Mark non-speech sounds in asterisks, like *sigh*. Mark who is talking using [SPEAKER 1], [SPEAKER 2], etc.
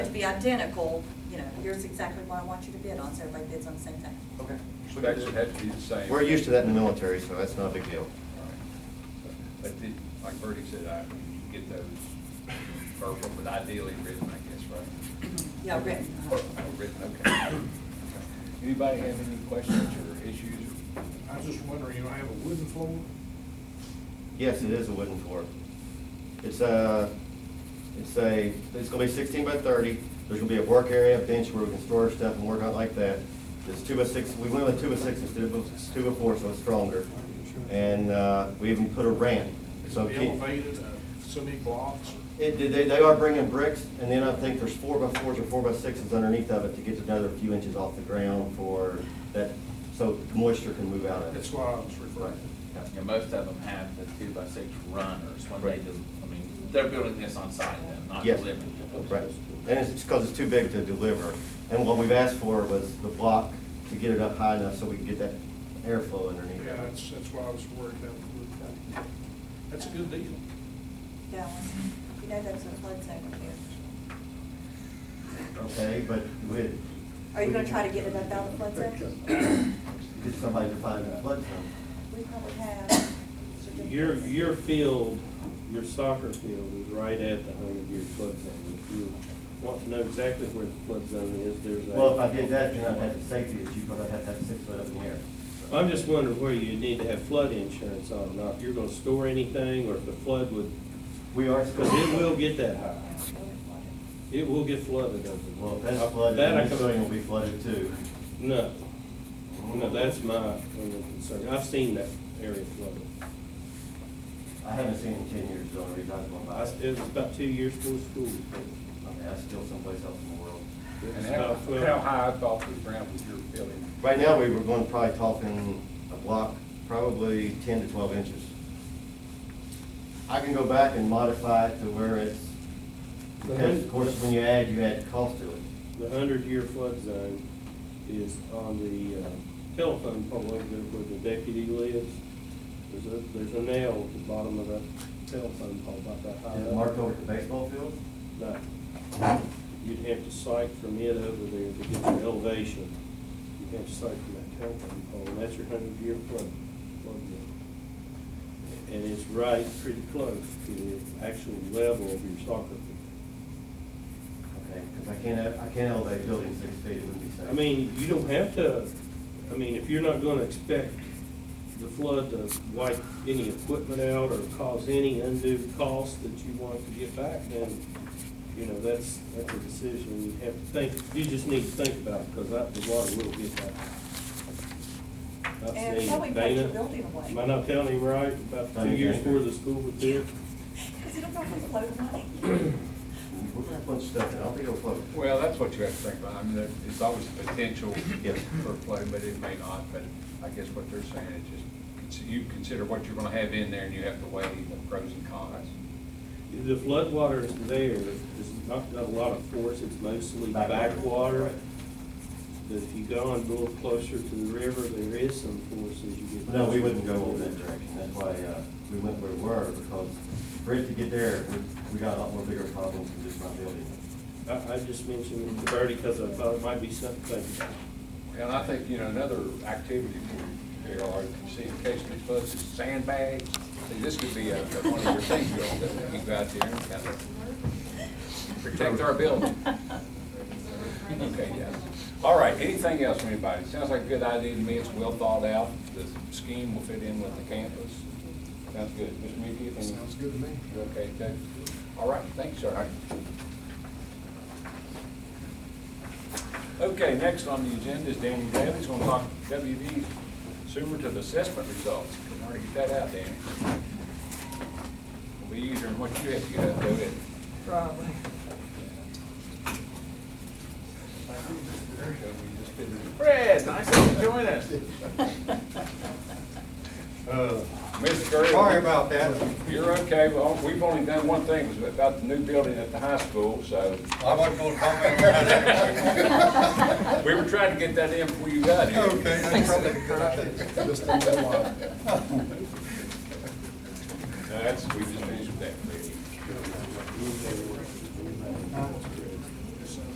[SPEAKER 1] should be identical, you know, here's exactly what I want you to bid on, so everybody bids on the same thing.
[SPEAKER 2] Okay.
[SPEAKER 3] So that should have to be the same.
[SPEAKER 2] We're used to that in the military, so that's not a big deal.
[SPEAKER 3] But the- like Bertie said, I, you get those verbal, but ideally written, I guess, right?
[SPEAKER 1] Yeah, written.
[SPEAKER 3] Or- oh, Written,
[SPEAKER 2] *coughs*
[SPEAKER 3] okay. Anybody have any questions or issues?
[SPEAKER 4] I was just wondering, you know, I have a wooden floor,
[SPEAKER 2] Yes, it is a wooden floor. It's a, it's a, it's gonna be sixteen by thirty. There's gonna be a work area, a bench where we can store our stuff and work out like that. It's two by six, we went with two by six instead of two by four, so it's stronger. And, uh, we even put a ramp.
[SPEAKER 4] it's
[SPEAKER 2] So keep-
[SPEAKER 4] elevated, uh, so many blocks.
[SPEAKER 2] It, they, they are bringing bricks, and then I think there's four by fours or four by sixes underneath of it to get another few inches off the ground for that, so moisture can move out of
[SPEAKER 4] That's
[SPEAKER 2] it.
[SPEAKER 4] why I was referring.
[SPEAKER 5] And most of them have the two by six runners when they
[SPEAKER 2] Right.
[SPEAKER 5] do, I mean, they're building this on site then, not
[SPEAKER 2] Yes.
[SPEAKER 5] living.
[SPEAKER 2] Right, and it's because it's too big to deliver. And what we've asked for was the block to get it up high enough so we can get that airflow underneath
[SPEAKER 4] Yeah,
[SPEAKER 2] it.
[SPEAKER 4] that's, that's why I was worried about the wooden floor. That's a good deal.
[SPEAKER 1] Yeah, you know, that's a flood zone here.
[SPEAKER 2] Okay, but we.
[SPEAKER 1] Are you gonna try to get it up out of the flood zone?
[SPEAKER 2] Get somebody to find a flood zone.
[SPEAKER 1] We probably have. Uh,
[SPEAKER 6] Your, your field, your soccer field is right at the hundred year flood zone. If you want to know exactly where the flood zone is, there's a.
[SPEAKER 2] Well, if I did that, then I'd have the safety issue, but I'd have to have six foot up in the air.
[SPEAKER 6] I'm just wondering where you need to have flood insurance on, or not if you're gonna store anything, or if the flood would,
[SPEAKER 2] We are.
[SPEAKER 6] because it will get that high. It will get flooded over. the-
[SPEAKER 2] Well, if that's flooded,
[SPEAKER 6] That I
[SPEAKER 2] then
[SPEAKER 6] can-
[SPEAKER 2] this building will be flooded too.
[SPEAKER 6] No, no, that's my only concern. I've seen that area flooded.
[SPEAKER 2] I haven't seen it in ten years, the only reason I was going
[SPEAKER 6] I
[SPEAKER 2] by,
[SPEAKER 6] s it was about two years before
[SPEAKER 2] I
[SPEAKER 6] school.
[SPEAKER 2] mean, that's still someplace else in the world.
[SPEAKER 6] It was
[SPEAKER 3] And how,
[SPEAKER 6] about 12.
[SPEAKER 3] how high up off the ground was your building?
[SPEAKER 2] Right now, we were going, probably talking a block, probably ten to twelve inches. I can go back and modify it to where it's, because of course, when you add, you add cost to it.
[SPEAKER 6] The hundred-year flood zone is on the uh, telephone pole over there where the deputy lives. There's a, there's a nail at the bottom of that telephone pole about that high.
[SPEAKER 2] Is it
[SPEAKER 6] up.
[SPEAKER 2] marked over the baseball field?
[SPEAKER 6] No. You'd have to sight from it over there to get your elevation. You'd have to sight from that telephone pole, and that's your hundred-year flood, flood zone. And it's right pretty close to the actual level of your soccer field.
[SPEAKER 2] Okay, because I can't, have- I can't elevate a building six feet, it wouldn't be safe.
[SPEAKER 6] I mean, you don't have to, I mean, if you're not gonna expect the flood to wipe any equipment out or cause any undue cost that you want to get back, then, you know, that's, that's a decision you have to think, you just need to think about, because that, the water will get back. I've
[SPEAKER 1] And
[SPEAKER 6] seen
[SPEAKER 1] probably break
[SPEAKER 6] Dana-
[SPEAKER 1] the building away.
[SPEAKER 6] Am I not telling him right, about two years before the school was built?
[SPEAKER 1] Because it'll probably float money.
[SPEAKER 2] We're gonna put stuff in, I'll be afloat.
[SPEAKER 3] Well, that's what you have to think about. I mean, there- it's always a potential
[SPEAKER 2] Yes.
[SPEAKER 3] for flow, but it may not. But I guess what they're saying is just, it's- you consider what you're gonna have in there and you have to weigh the pros and cons.
[SPEAKER 6] The floodwater is there, there's not, not a lot of force, it's mostly
[SPEAKER 2] Backwater.
[SPEAKER 6] backwater.
[SPEAKER 2] Right.
[SPEAKER 6] But if you go and go closer to the river, there is some force as you get.
[SPEAKER 2] No, we wouldn't go over that direction, that's why, uh, we went where we were, because for it to get there, we, we got a lot more bigger problems than just my building.
[SPEAKER 6] I, I just mentioned it to Bertie because I thought it might be something.
[SPEAKER 3] And I think, you know, another activity for you, Darryl, or if you see in case of floods, is sandbags. See, this could be a, one of your things you'll, that you go out there and kind of protect
[SPEAKER 1] *laughs*
[SPEAKER 3] our building. Okay, yeah. All right, anything else from anybody? Sounds like a good idea to me, it's well thought out, the scheme will fit in with the campus. Sounds good. Mr. Meeke, anything?
[SPEAKER 4] Sounds good to me.
[SPEAKER 3] You Okay, Dave? All right, thanks, sir. Okay, next on the agenda is Danny Daly's gonna talk WV summative assessment results. Can already get that out, Danny. It'll be easier than what you have to get out, do it.
[SPEAKER 1] Probably.
[SPEAKER 3] Fred, nice to join us.
[SPEAKER 4] Uh,
[SPEAKER 3] Mr. Gurley.
[SPEAKER 2] Sorry about that.
[SPEAKER 3] You're okay, well, we've only done one thing, was about the new building at the high school, so.
[SPEAKER 7] I wasn't gonna comment on that.
[SPEAKER 3] We were trying to get that in before you got here.
[SPEAKER 7] Okay, that's probably a good idea.
[SPEAKER 3] That's, we just